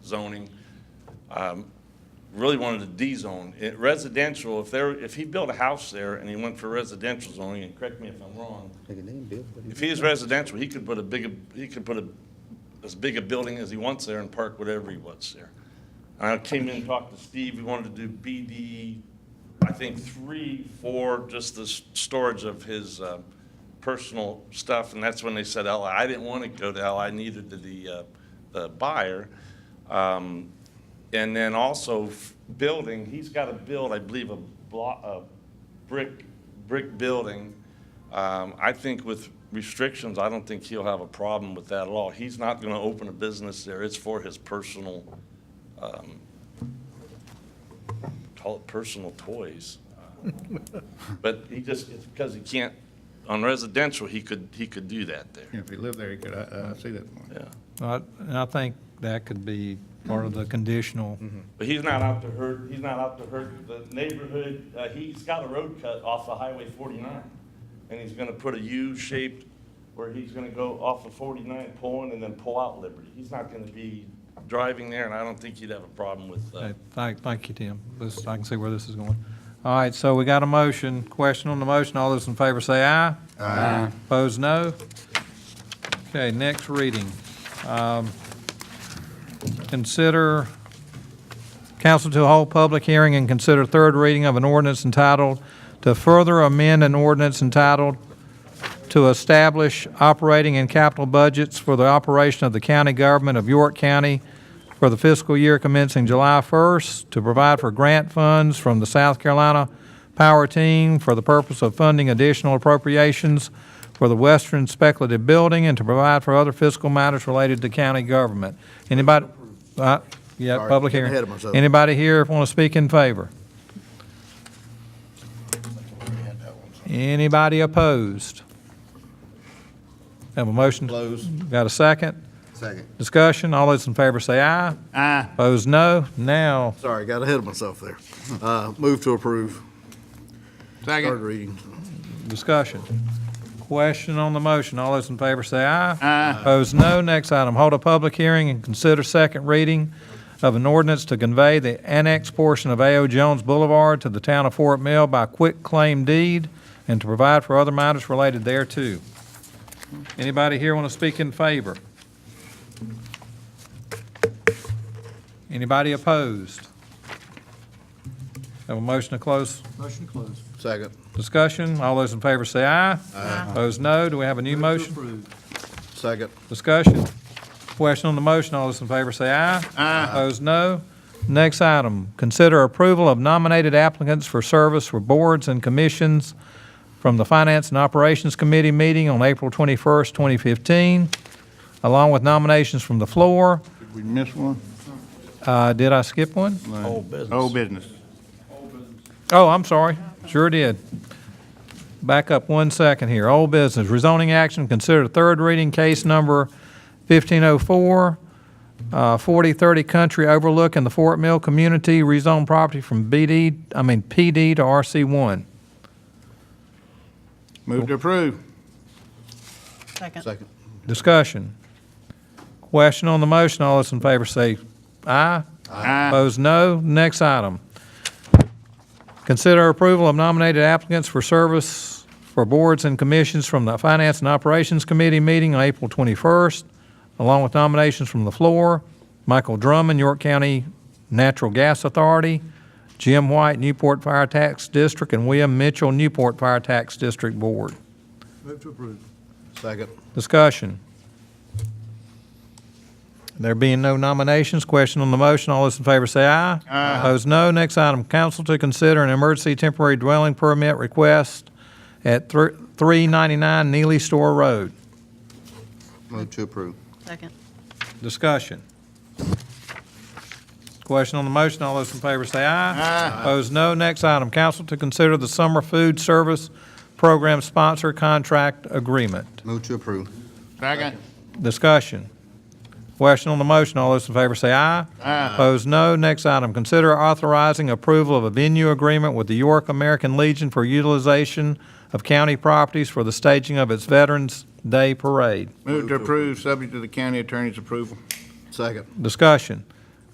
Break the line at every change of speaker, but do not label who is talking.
zoning. Um, Really wanted to D-zone. It- Residential, if there, if he built a house there and he went for residential zoning, and correct me if I'm wrong,
Look at them, Bill. What do you-
if he is residential, he could put a big, he could put a, as big a building as he wants there and park whatever he wants there. And I came in and talked to Steve, we wanted to do BD, I think, three, four, just the s- storage of his uh, personal stuff, and that's when they said LI. I didn't want to go to LI, neither did the, uh, the buyer. Um, And then also f- building, he's got to build, I believe, a block, a brick, brick building. Um, I think with restrictions, I don't think he'll have a problem with that at all. He's not going to open a business there. It's for his personal, um, call it personal toys. But he just, it's because he can't, on residential, he could, he could do that there.
Yeah, If he lived there, he could, I, I see that point.
Yeah.
I- And I think that could be part of the conditional.
But he's not out to hurt, he's not out to hurt the neighborhood. Uh, he's got a road cut off of Highway forty-nine. And he's gonna put a U-shaped where he's gonna go off of forty-nine, pull in and then pull out Liberty. He's not gonna be driving there and I don't think he'd have a problem with, uh,
Okay, Thank, thank you, Tim. This, I can see where this is going. All right, so we got a motion. Question on the motion. All those in favor say aye. Aye. Opposed, no. Okay, next reading. Um, Consider council to hold public hearing and consider third reading of an ordinance entitled to further amend an ordinance entitled to establish operating and capital budgets for the operation of the county government of York County for the fiscal year commencing July 1st, to provide for grant funds from the South Carolina Power Team for the purpose of funding additional appropriations for the Western Speculative Building, and to provide for other fiscal matters related to county government. Anybody? Uh, Yeah,
Sorry,
public
getting
hearing.
ahead of myself.
Anybody here want to speak in favor? Anybody opposed? Have a motion?
Close.
Got a second?
Second.
Discussion? All those in favor say aye.
Aye.
Opposed, no. Now,
Sorry, got ahead of myself there. Uh, Move to approve. Third
Second.
reading.
discussion. Question on the motion. All those in favor say aye. Aye. Opposed, no. Next item, hold a public hearing and consider second reading of an ordinance to convey the annex portion of A.O. Jones Boulevard to the town of Fort Mill by quick claim deed and to provide for other matters related thereto. Anybody here want to speak in favor? Anybody opposed? Have a motion to close
Motion to close.
Second.
Discussion, all those in favor say aye. Aye. Opposed, no. Do we have a new
Move to
motion?
approve.
Second.
Discussion. Question on the motion, all those in favor say aye. Aye. Opposed, no. Next item, consider approval of nominated applicants for service for boards and commissions from the Finance and Operations Committee meeting on April 21st, 2015, along with nominations from the floor.
Did we miss one?
Uh, Did I skip one?
Old business. Old business.
Oh, I'm sorry. Sure did. Back up one second here. Old business, rezoning action, consider third reading case number 1504, uh, 4030 Country Overlook in the Fort Mill Community, rezone property from BD, I mean PD to RC1.
Move to approve.
Second.
Second.
Discussion. Question on the motion, all those in favor say aye.
Aye.
Opposed, no. Next item. Consider approval of nominated applicants for service for boards and commissions from the Finance and Operations Committee meeting on April 21st, along with nominations from the floor, Michael Drummond, York County Natural Gas Authority, Jim White, Newport Fire Tax District, and William Mitchell, Newport Fire Tax District Board.
Move to approve.
Second.
Discussion. There being no nominations, question on the motion, all those in favor say aye. Aye. Opposed, no. Next item, council to consider an emergency temporary dwelling permit request at thr- 399 Neely Store Road.
Move to approve.
Second.
Discussion. Question on the motion, all those in favor say aye. Aye. Opposed, no. Next item, council to consider the summer food service program sponsor contract agreement.
Move to approve.
Second.
Discussion. Question on the motion, all those in favor say aye.
Aye.
Opposed, no. Next item, consider authorizing approval of a venue agreement with the York American Legion for utilization of county properties for the staging of its Veterans Day Parade.
Move to approve, subject to the county attorney's approval.
Second.
Discussion.